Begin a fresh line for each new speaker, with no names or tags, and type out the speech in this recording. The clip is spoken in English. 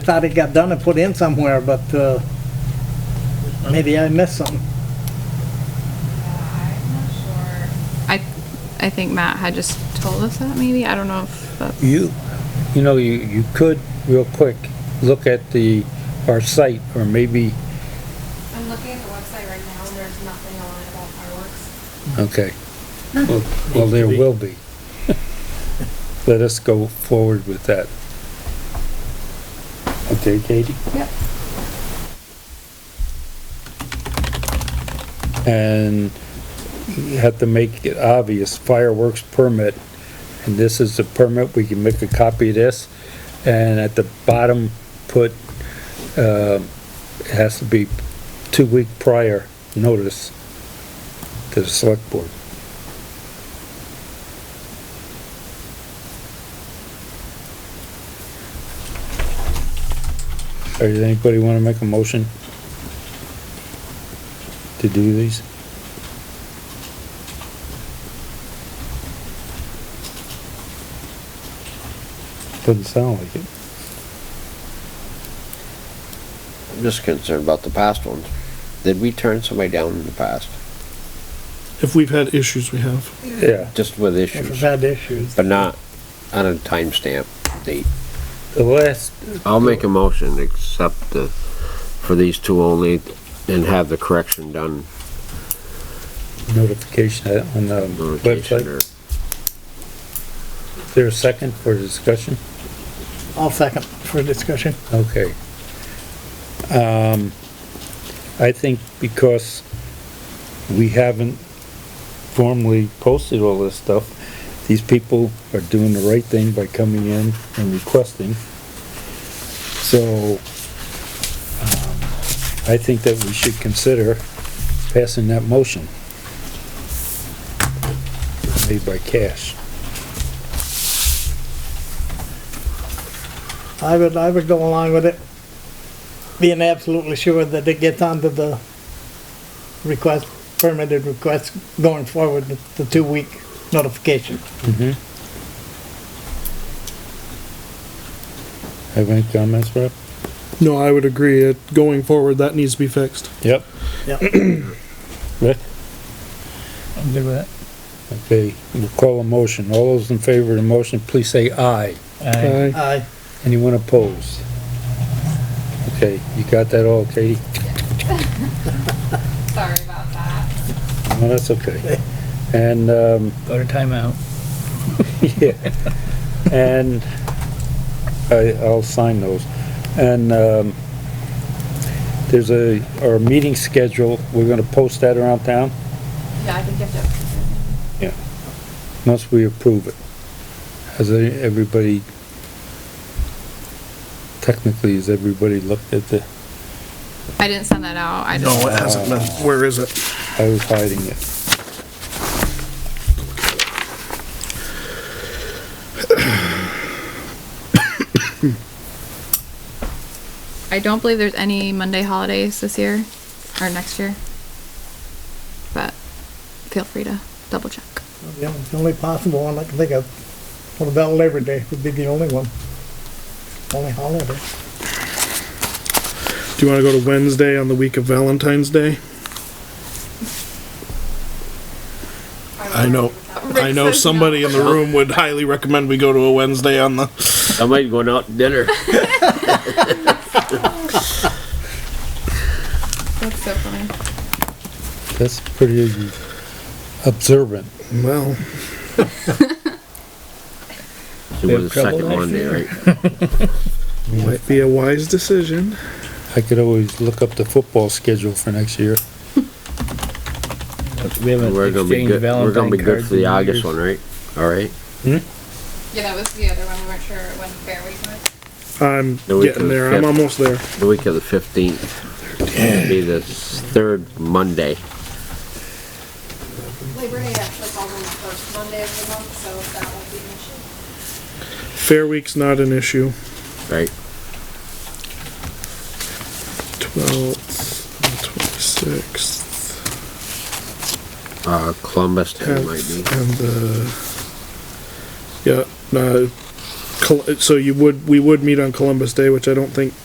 Thought it got done and put in somewhere, but, uh, maybe I missed something.
I, I think Matt had just told us that maybe, I don't know if that's.
You, you know, you, you could, real quick, look at the, our site, or maybe,
I'm looking at the website right now, and there's nothing on it about fireworks.
okay. Well, well, there will be. Let us go forward with that. Okay, Katie?
Yep.
And you have to make it obvious fireworks permit, and this is the permit, we can make a copy of this, and at the bottom, put, um it has to be two week prior notice to the select board. Or does anybody wanna make a motion to do these? Doesn't sound like it.
I'm just concerned about the past ones. Did we turn somebody down in the past,
If we've had issues, we have.
Yeah,
just with
If it's
issues,
had issues.
but not on a timestamp date?
the last,
I'll make a motion, except the, for these two only, and have the correction done.
notification on the
notification
website.
or-
Is there a second for discussion?
I'll second for discussion.
Okay. Um, I think because we haven't formally posted all this stuff, these people are doing the right thing by coming in and requesting. So, um, I think that we should consider passing that motion. Made by Cash.
I would, I would go along with it, being absolutely sure that it gets onto the request, permitted request going forward, with the two-week notification.
Mm-hmm. Have any comments, Rob?
No, I would agree. It, going forward, that needs to be fixed.
Yep.
Yep.
Rick?
I'm good with
Okay, we'll call a motion. All those in favor of the motion, please say aye.
Aye.
Aye.
Anyone opposed? Okay, you got that all, Katie?
Sorry about that.
No, that's okay. And, um,
Go to timeout.
yeah, and I, I'll sign those. And, um, there's a, our meeting schedule, we're gonna post that around town
Yeah, I think you have
once we approve it. Has any- everybody, technically, has everybody looked at the
I didn't send that out, I
No, it
just,
hasn't been. Where is it?
I was hiding it.
I don't believe there's any Monday holidays this year, or next year. But feel free to double check.
The only- the only possible one I can think of, what about Labor Day would be the only one. Only holiday.
Do you want to go to Wednesday on the week of Valentine's Day? I know, I know somebody in the room would highly recommend we go to a Wednesday on the,
Somebody going out to dinner.
That's so funny.
That's pretty observant.
well,
It was the second
trouble.
Monday, right?
might be a wise decision.
I could always look up the football schedule for next year.
We haven't
We're gonna be
exchanged
good, we're gonna be good
Valentine cards.
for the
in
August one,
years.
right? All right?
Yeah, that was the other one, we weren't sure when Fair Week was.
I'm
The week
getting
of
there.
the
I'm
fifth.
almost there.
The week of the fifteenth, be the third Monday.
Labor Day actually falls on the first Monday of the month, so that won't be an issue.
Fair Week's not an issue.
Right.
Twelfth, twenty-sixth,
Uh, Columbus Day might
uh, tenth,
be.
and the, yeah, uh, Col- So you would, we would meet on Columbus Day, which I don't think